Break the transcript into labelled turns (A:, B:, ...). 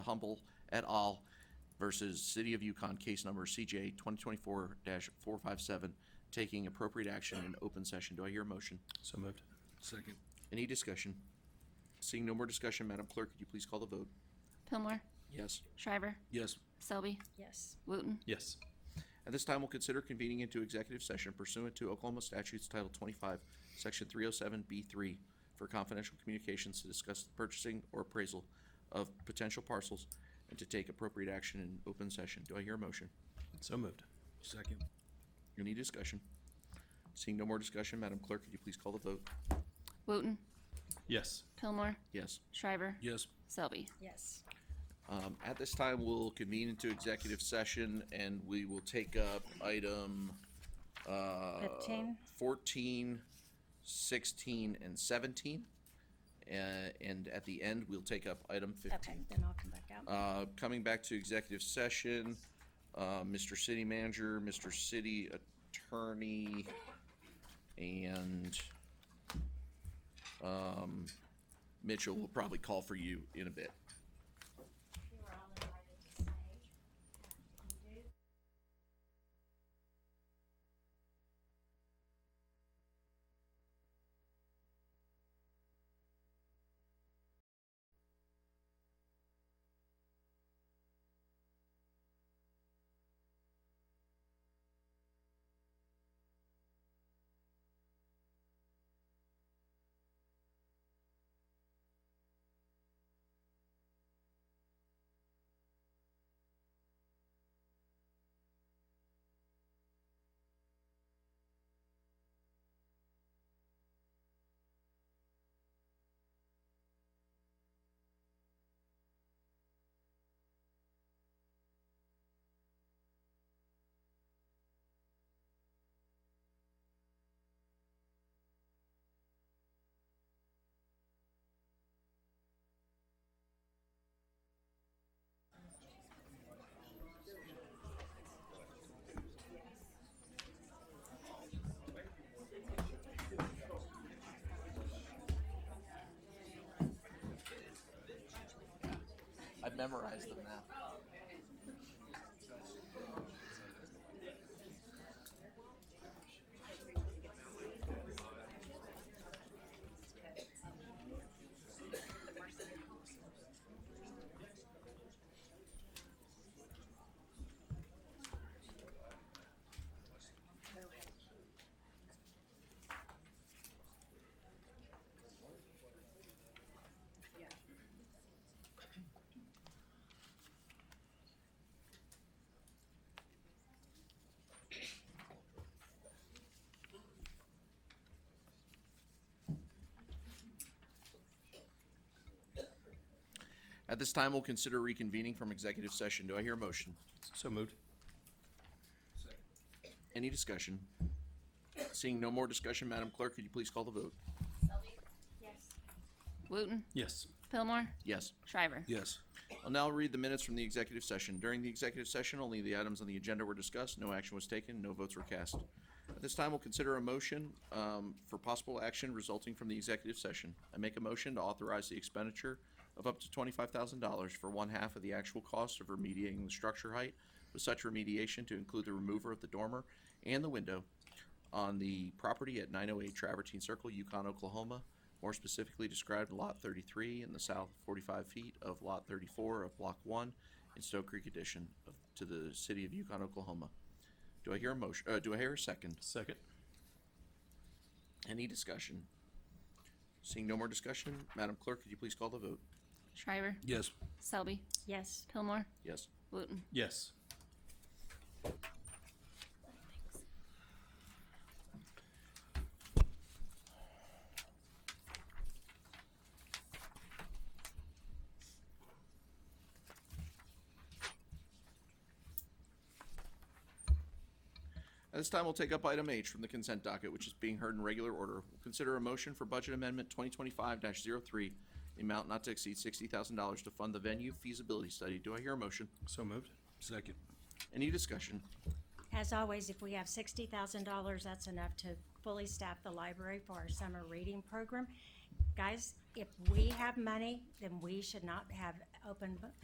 A: Humble et al. versus City of Yukon, case number CJ 2024-457, taking appropriate action in open session. Do I hear a motion?
B: So moved.
C: Second.
A: Any discussion? Seeing no more discussion, Madam Clerk, could you please call the vote?
D: Pillmore,
A: Yes.
D: Shriver,
C: Yes.
D: Selby,
E: Yes.
D: Wooten,
B: Yes.
A: At this time, we'll consider convening into executive session pursuant to Oklahoma statutes Title 25, Section 307B3, for confidential communications to discuss the purchasing or appraisal of potential parcels and to take appropriate action in open session. Do I hear a motion?
B: So moved.
C: Second.
A: Any discussion? Seeing no more discussion, Madam Clerk, could you please call the vote?
D: Wooten,
B: Yes.
D: Pillmore,
A: Yes.
D: Shriver,
C: Yes.
D: Selby.
E: Yes.
A: Um, At this time, we'll convene into executive session and we will take up item uh,
E: Fifteen.
A: 14, 16, and 17. Uh, And at the end, we'll take up item
E: Okay,
A: 15.
E: then I'll come back out.
A: Uh, Coming back to executive session, uh, Mr. City Manager, Mr. City Attorney, and um, Mitchell will probably call for you in a bit.
F: you are all invited to stay. And if you do,
A: I've memorized them now. At this time, we'll consider reconvening from executive session. Do I hear a motion?
B: So moved.
A: Any discussion? Seeing no more discussion, Madam Clerk, could you please call the vote?
F: Selby? Yes.
D: Wooten,
B: Yes.
D: Pillmore,
A: Yes.
D: Shriver.
C: Yes.
A: I'll now read the minutes from the executive session. During the executive session, only the items on the agenda were discussed. No action was taken. No votes were cast. At this time, we'll consider a motion um, for possible action resulting from the executive session. I make a motion to authorize the expenditure of up to $25,000 for one half of the actual cost of remediating the structure height, with such remediation to include the remover of the dormer and the window on the property at 908 Travertine Circle, Yukon, Oklahoma, more specifically described Lot 33 in the south 45 feet of Lot 34 of Block 1 in Stowe Creek addition of- to the city of Yukon, Oklahoma. Do I hear a motion, uh, do I hear a second?
B: Second.
A: Any discussion? Seeing no more discussion, Madam Clerk, could you please call the vote?
D: Shriver,
C: Yes.
D: Selby,
E: Yes.
D: Pillmore,
A: Yes.
D: Wooten.
B: Yes.
A: At this time, we'll take up item H from the consent docket, which is being heard in regular order. We'll consider a motion for budget amendment twenty twenty-five 3 the amount not to exceed sixty thousand dollars to fund the venue feasibility study. Do I hear a motion?
B: So moved.
C: Second.
A: Any discussion?
E: As always, if we have sixty thousand dollars, that's enough to fully staff the library for our summer reading program. Guys, if we have money, then we should not have open